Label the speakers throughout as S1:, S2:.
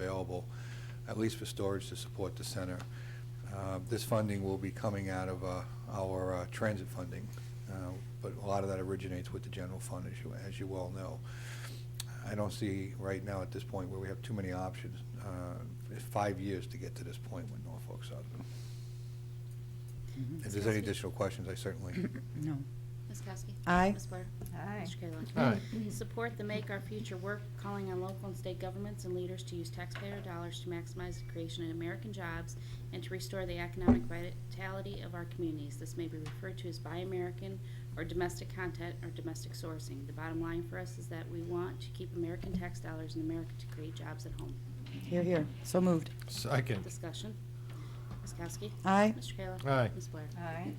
S1: available, at least for storage to support the center. Uh, This funding will be coming out of uh, our uh, transit funding, uh, but a lot of that originates with the general fund, as you, as you well know. I don't see right now at this point where we have too many options. Uh, It's five years to get to this point with Norfolk Southern.
S2: Mm-hmm.
S1: If there's any additional questions, I certainly,
S2: No.
S3: Ms. Kowski?
S2: Aye.
S3: Ms. Blair?
S4: Aye.
S3: Mr. Kayla?
S5: Aye.
S3: Support the Make Our Future Work, calling on local and state governments and leaders to use taxpayer dollars to maximize the creation of American jobs and to restore the economic vitality of our communities. This may be referred to as Buy American or domestic content or domestic sourcing. The bottom line for us is that we want to keep American tax dollars in America to create jobs at home.
S2: Here, here. So moved.
S5: Second.
S3: Discussion. Ms. Kowski?
S2: Aye.
S3: Mr. Kayla?
S5: Aye.
S3: Ms. Blair?
S4: Aye.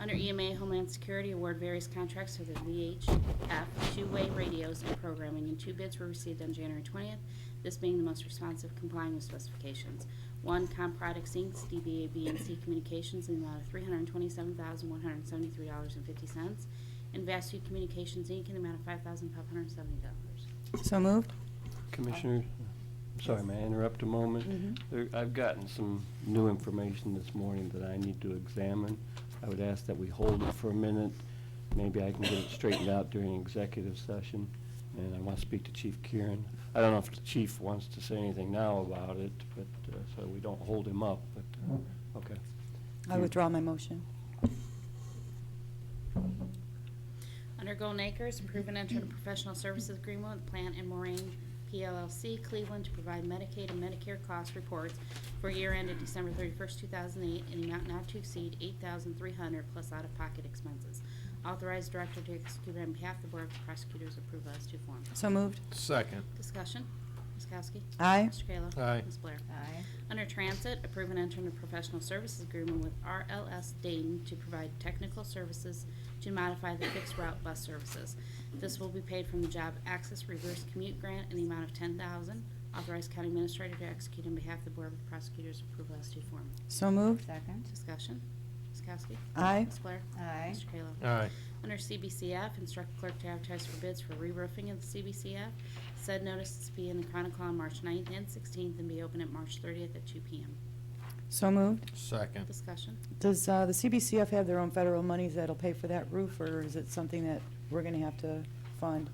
S3: Under EMA Homeland Security, award various contracts for the VHF two-way radios and programming, and two bids were received on January 20th, this being the most responsive complying with specifications. One, Com Products Inc., DBA BNC Communications, in the amount of $327,173.50, and Vastu Communications Inc., in the amount of $5,570.
S2: So moved.
S6: Commissioner, sorry, may I interrupt a moment? There- I've gotten some new information this morning that I need to examine. I would ask that we hold it for a minute. Maybe I can get it straightened out during executive session, and I want to speak to Chief Kieran. I don't know if the chief wants to say anything now about it, but, uh, so we don't hold him up, but, uh, okay.
S2: I withdraw my motion.
S3: Under Golden Acres, approve and enter a professional services agreement with Plant and Moraine PLLC Cleveland to provide Medicaid and Medicare cost reports for year ended December 31st, 2008, in the amount not to exceed 8300 plus out-of-pocket expenses. Authorize director to execute on behalf of the Board of Prosecutors, approve as to form.
S2: So moved.
S5: Second.
S3: Discussion, Ms. Kowski?
S2: Aye.
S3: Mr. Kayla?
S5: Aye.
S3: Ms. Blair?
S4: Aye.
S3: Under Transit, approve and enter into professional services agreement with RLS Dayton to provide technical services to modify the fixed route bus services. This will be paid from the Job Access Reverse Commute Grant in the amount of ten thousand. Authorized County Administrator to execute on behalf of the Board of Prosecutors approval as to form.
S2: So moved.
S4: Second.
S3: Discussion. Ms. Kowski?
S2: Aye.
S3: Ms. Blair?
S4: Aye.
S3: Mr. Kayla?
S5: Aye.
S3: Under CBCF, instruct clerk to advertise for bids for re-roofing of the CBCF. Said notices be in the Chronicle on March 9th and sixteenth and be open at March thirtieth at two P M.
S2: So moved.
S5: Second.
S3: Discussion.
S2: Does uh, the CBCF have their own federal monies that'll pay for that roof, or is it something that we're going to have to fund?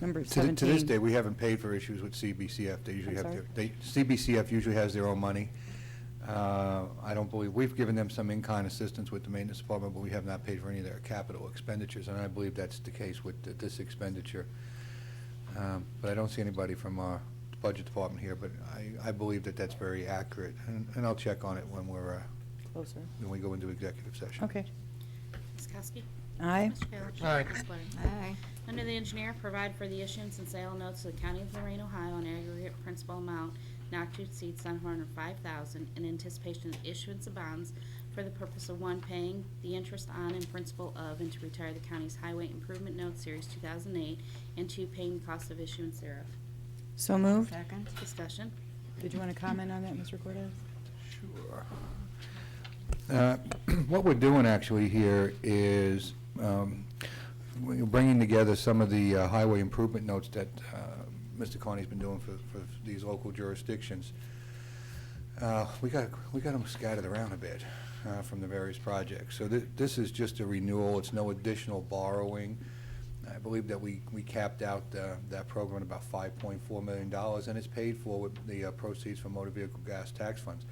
S2: Number
S1: to th-
S2: 17.
S1: to this day, we haven't paid for issues with CBCF. They usually
S2: I'm
S1: have
S2: sorry?
S1: their, they, CBCF usually has their own money. Uh, I don't believe, we've given them some in-kind assistance with the maintenance department, but we have not paid for any of their capital expenditures, and I believe that's the case with th- this expenditure. Um, But I don't see anybody from our budget department here, but I, I believe that that's very accurate, and, and I'll check on it when we're, uh,
S2: Closer.
S1: when we go into executive session.
S2: Okay.
S3: Ms. Kowski?
S2: Aye.
S3: Mr. Kayla?
S5: Aye.
S3: Ms. Blair?
S4: Aye.
S3: Under the engineer, provide for the issuance and sale of notes to the County of Lorraine, Ohio, in aggregate principal amount not to exceed seven hundred and five thousand in anticipation of issuance of bonds for the purpose of, one, paying the interest on and principal of, and to retire the county's highway improvement note series two thousand eight, and two, paying the cost of issuance thereof.
S2: So moved.
S4: Second.
S3: Discussion.
S2: Did you want to comment on that, Mr. Cortez?
S1: Sure. Uh, What we're doing actually here is um, we're bringing together some of the uh, highway improvement notes that uh, Mr. Carney's been doing for for these local jurisdictions. Uh, We got, we got them scattered around a bit uh, from the various projects. So thi- this is just a renewal, it's no additional borrowing. I believe that we we capped out uh, that program at about $5.4 million, and it's paid for with the uh, proceeds from motor vehicle gas tax funds.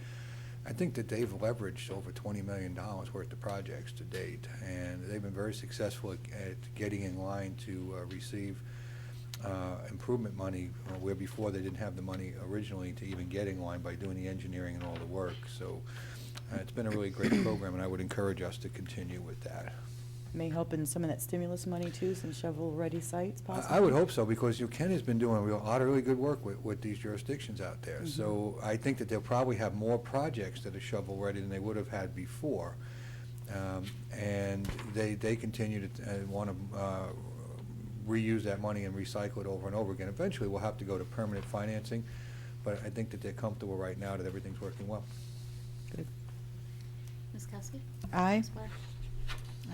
S1: I think that they've leveraged over $20 million worth of projects to date, and they've been very successful at- at getting in line to uh, receive uh, improvement money, uh, where before they didn't have the money originally to even get in line by doing the engineering and all the work. So uh, it's been a really great program, and I would encourage us to continue with that.
S2: May help in some of that stimulus money, too, some shovel-ready sites possibly?
S1: I- I would hope so, because you- Ken has been doing real, utterly good work with, with these jurisdictions out there. So I think that they'll probably have more projects that are shovel-ready than they would have had before. Um, And they, they continue to want to reuse that money and recycle it over and over again. Eventually, we'll have to go to permanent financing, but I think that they're comfortable right now that everything's working well.
S2: Good.
S3: Ms. Kowski?
S2: Aye.
S3: Ms. Blair?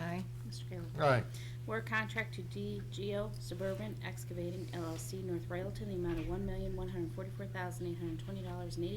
S4: Aye.
S3: Mr. Kayla?
S5: Aye.
S3: Award contract to DGO Suburban Excavating LLC, North Railton, the amount of one million, one hundred forty-four thousand, eight hundred twenty dollars and eighty